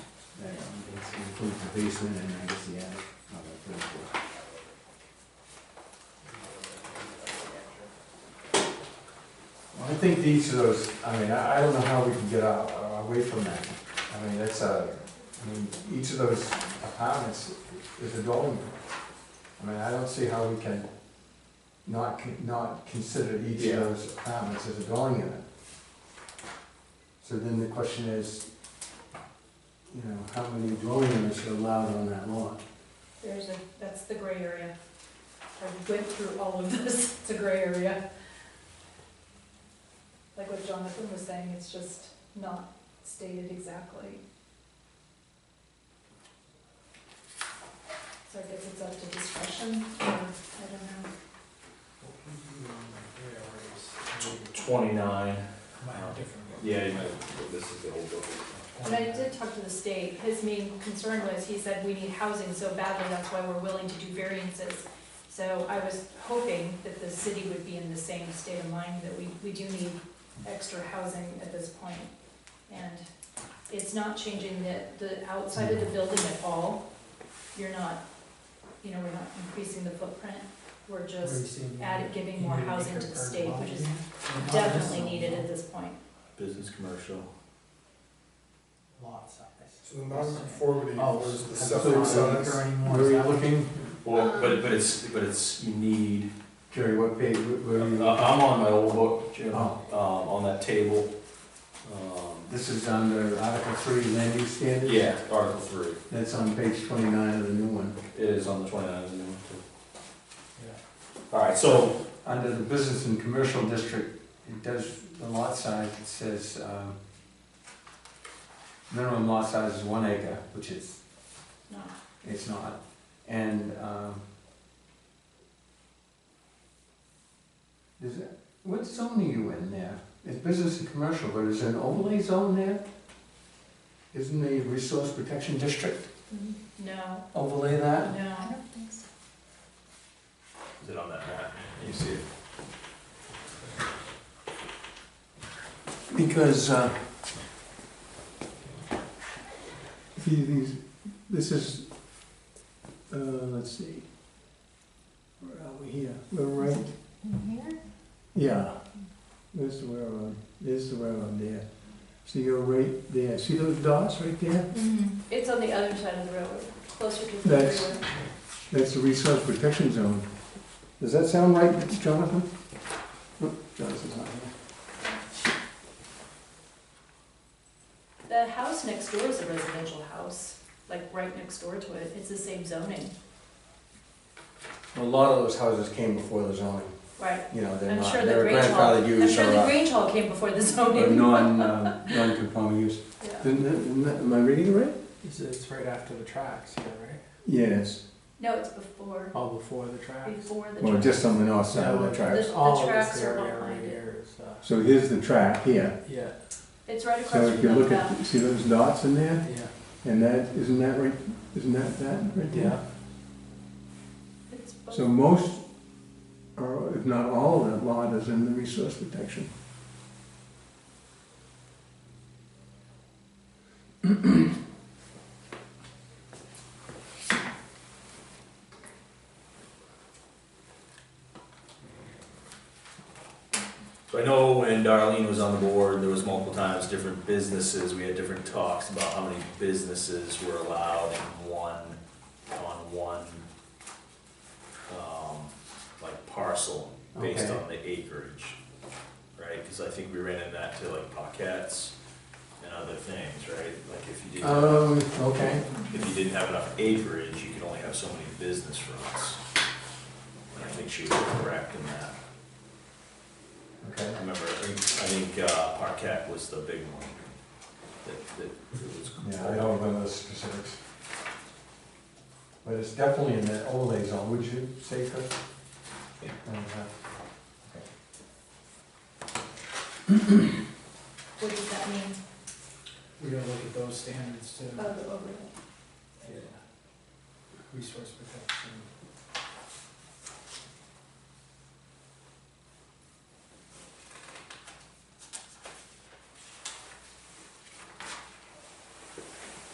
includes the basement and I guess the attic. uh, the third floor. I think each of those, I mean, I, I don't know how we can get a- a- away from that. I mean, that's a, I mean, each of those apartments is a dwelling. I mean, I don't see how we can not, con- not consider each Yeah. of those apartments as a dwelling unit. So then the question is, you know, how many dwelling units are allowed on that lot? There's a, that's the gray area. I went through all of this, it's a gray area. Like what Jonathan was saying, it's just not stated exactly. So I guess it's up to discretion, or I don't know. Twenty-nine. Yeah, you might. might- this is the old book. But I did talk to the state, his main concern was, he said, we need housing so badly, that's why we're willing to do variances. So I was hoping that the city would be in the same state of mind, that we, we do need extra housing at this point. And it's not changing the, the outside of the building at all. You're not, you know, we're not increasing the footprint, we're just adding, giving more housing to the state, which is definitely needed at this point. Business, commercial. Lot size. So the non-conformity Oh, was the so septic it's not size. occurring more, Where are is you that- looking, Well, but, but it's, but it's, you need, Jerry, what page, where uh, are you? I'm looking? on my old book, Jim, um, Oh. on that table. Um, This is under Article Three, Land Use Standards? Yeah, Article three, That's on page twenty-nine of the new one. it is on the twenty-nine, isn't it? Yeah. Alright, so, Under the business and commercial district, it does, the lot size, it says, um, minimum lot size is one acre, which is, Not it's not, and, um, is it, what zone are you in there? It's business and commercial, but is there an overlay zone there? Isn't the resource protection district No, overlay that? no. is it on that map? You see it? Because, uh, these, these, this is, uh, let's see, where are we here? We're right. here? Yeah, there's the railroad, there's the railroad there. So you're right there, see those dots right there? It's on the other side of the road, closer to the That's- river. That's the resource protection zone. Does that sound right, Jonathan? Oh, Jonathan's not here. The house next door is a residential house, like right next door to it, it's the same zoning. A lot of those houses came before the zoning, Right. you know, they're I'm not, sure the they're Grange Hall, grandfathered I'm use sure or the uh, Grange Hall came before the Or zoning. non, uh, non-conforming use. Yeah. Didn't it- isn't that- Am I reading it right? It's, it's right after the tracks here, right? Yes, No, it's before, All before the tracks. before the. well, track. just on the north side of the No, tracks. The All of tracks this are area behind right it. here is, uh, So here's the track here. yeah, It's right So across if from you the look back. at, see those dots in there? yeah, And that, isn't that right, isn't that that right there? yeah. It's both- So most, or if not all of that lot is in the resource protection. So I know when Darlene was on the board, there was multiple times, different businesses, we had different talks about how many businesses were allowed in one, on one, um, like parcel, based Okay. on the acreage, right? Cause I think we ran in that to like Paquettes and other things, right? Like if you didn't, Um, okay. if you didn't have enough acreage, you could only have so many business fronts. And I think she was correct in that. Okay. I remember, I think, I think uh, Parquet was the big one that, that it was. Yeah, I don't remember the specifics. But it's definitely in that overlay zone, would you say, uh, Chris? Yeah. What does that mean? We gotta look at those standards Oh, too. the overlay. Yeah. Resource protection.